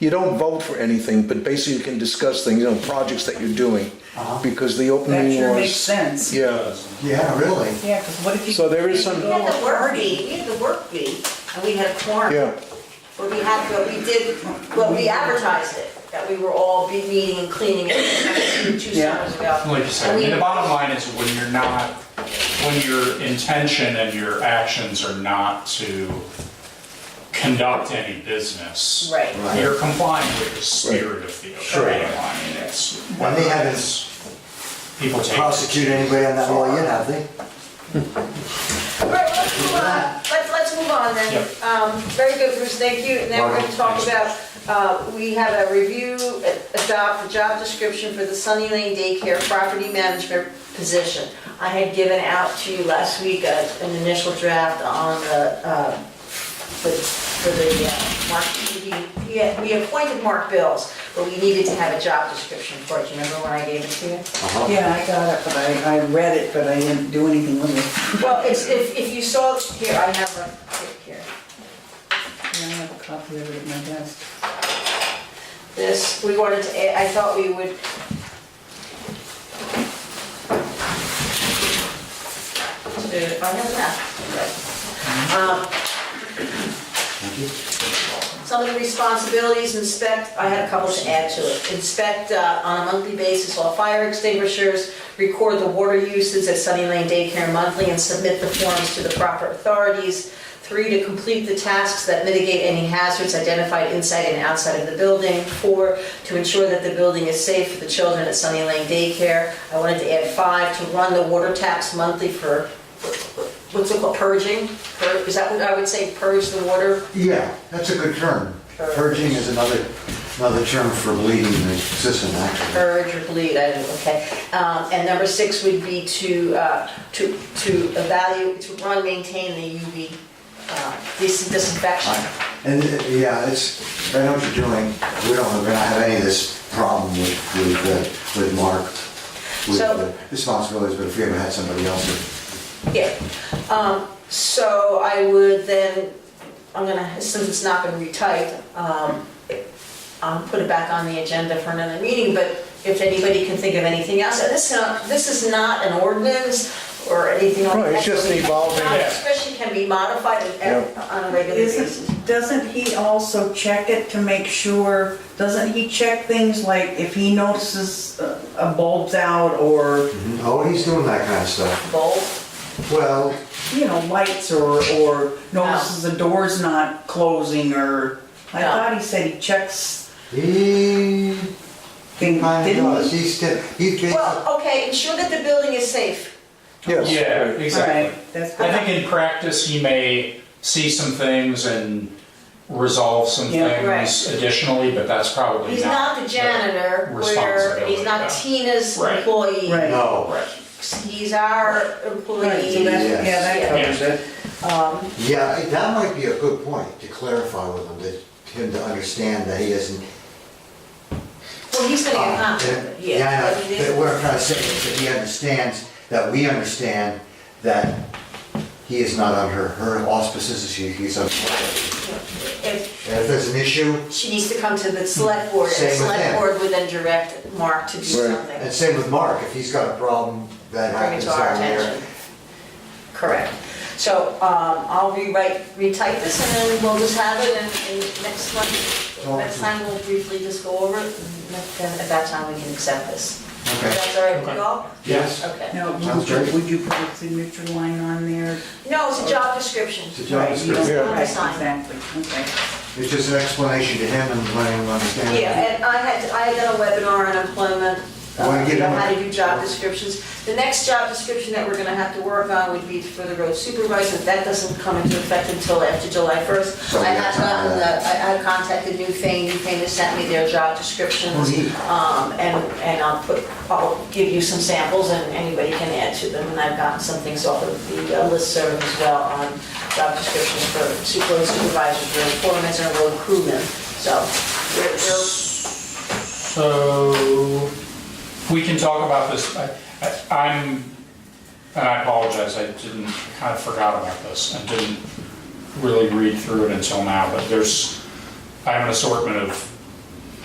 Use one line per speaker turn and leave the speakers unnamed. you don't vote for anything, but basically you can discuss things, you know, projects that you're doing, because the open
That
meeting
sure
laws-
makes sense.
Yeah,
Yeah, really.
Yeah, because what if you.
So there is some-
We had the work bee, we had the work bee, and we had a quorum.
yeah,
Where we had, but we did, well, we advertised it, that we were all be meeting and cleaning it two two
Yeah.
summers ago.
Like you said, I mean, the bottom line is when you're not, when your intention and your actions are not to conduct any business.
Right.
You're complying with the spirit of the open meeting law. I mean, it's.
And they haven't
People take.
Prosecute anybody on that law yet, have they?
All right, let's move on, let's, let's move on then.
Yep.
Um, very good, Bruce, thank you, and then we're gonna talk about, uh, we have a review, a- adopt the job description for the Sunny Lane Daycare Property Management position. I had given out to you last week a- an initial draft on the, uh, for for the, uh, Mark, we- we, had- we appointed Mark Bills, but we needed to have a job description for it, you remember when I gave it to you?
Yeah, I got it, but I, I read it, but I didn't do anything with it.
Well, it's, if, if you saw, here, I have a, here.
Yeah, I have a copy of it at my desk.
this, we wanted to, add- I thought we would. To- I have that. Um, Some of the responsibilities, inspect, I had a couple to add to it. Inspect uh, on a monthly basis all fire extinguishers, record the water uses at Sunny Lane Daycare monthly, and submit the forms to the proper authorities. Three, to complete the tasks that mitigate any hazards identified inside and outside of the building. Four, to ensure that the building is safe for the children at Sunny Lane Daycare. I wanted to add five, to run the water taps monthly for, what's it called, purging? Pur- Is that what I would say, purge the water?
Yeah, that's a good term. Purging is another, another term for bleeding the system, actually.
urge or bleed, I don't, okay. Um, And number six would be to, uh, to, to evaluate, to run, maintain the UV uh, dis- disinfection.
And, uh, yeah, it's, I know what you're doing. We don't, we're not have any of this problem with, with, uh, with Mark, with
So-
the responsibilities, but if we ever had somebody else who
Yeah, um, so I would then, I'm gonna, since it's not been retyped, um, I'll put it back on the agenda for another meeting, but if anybody can think of anything else, and this, is not- this is not an ordinance or anything like that.
No, it's just an evolving-
Especially can be modified at- on a regular basis.
Isn't, doesn't he also check it to make sure, doesn't he check things like if he notices a a bulb's out or,
Oh, he's doing that kind of stuff.
Bold.
Well,
you know, lights or, or notices the door's not closing or, I
No.
thought he said he checks
he
things,
kind of
didn't
does.
he?
He's still, he's basically,
Well, okay, ensure that the building is safe.
yes.
Yeah,
right.
exactly.
Alright, that's
I
good.
think in practice, he may see some things and resolve some
Yeah,
things
right.
additionally, but that's probably
He's not the janitor, where, he's not
Responsibility,
Tina's
Right.
employee.
Right.
no.
Right.
He's our
Right, so
employee.
that's- Yeah, that covers it.
Yeah, that might be a good point to clarify with him, that him to understand that he isn't.
Well, he's gonna get
uh,
compensated,
Yeah,
yeah.
I
but it
know,
is-
that we're trying to say is that he understands, that we understand that he is not under her auspices, she, he's under.
If
And if there's an issue,
she needs to come to the select board, and
Same
the
with
select
him.
board would then direct Mark to do
Right.
something.
and same with Mark, if he's got a problem that
Bring
happens
it to our
down there.
attention. Correct. So, um, I'll rewrite, retype this, and then we'll just have it, and, and next month, next time we'll briefly just go over it, and then at that time we can accept this.
Okay.
That's all right with you all?
Yes.
Okay.
Now,
Sounds
would
great.
you- would you put a signature line on there?
No, it's a job description.
It's a job
Right, you don't-
description.
right,
Sign.
Exactly, okay.
It's just an explanation to him and letting him understand.
Yeah, and I had, I had done a webinar on employment,
I wanna get
uh,
on
how
it.
to do job descriptions. The next job description that we're gonna have to work on would be for the road supervisor, that doesn't come into effect until after July first.
So we
I
got
have
time
gotten
for
the,
that.
I I contacted New Thing, New Thing has sent me their job descriptions.
Oh, neat.
Um, and, and I'll put, I'll give you some samples and anybody can add to them, and I've gotten some things off of the uh, listserv as well on job descriptions for super- road supervisors, road foremen, and road crewmen, so. we're- we're-
So, we can talk about this, I- I- I'm, and I apologize, I didn't, kind of forgot about this, and didn't really read through it until now, but there's, I have an assortment of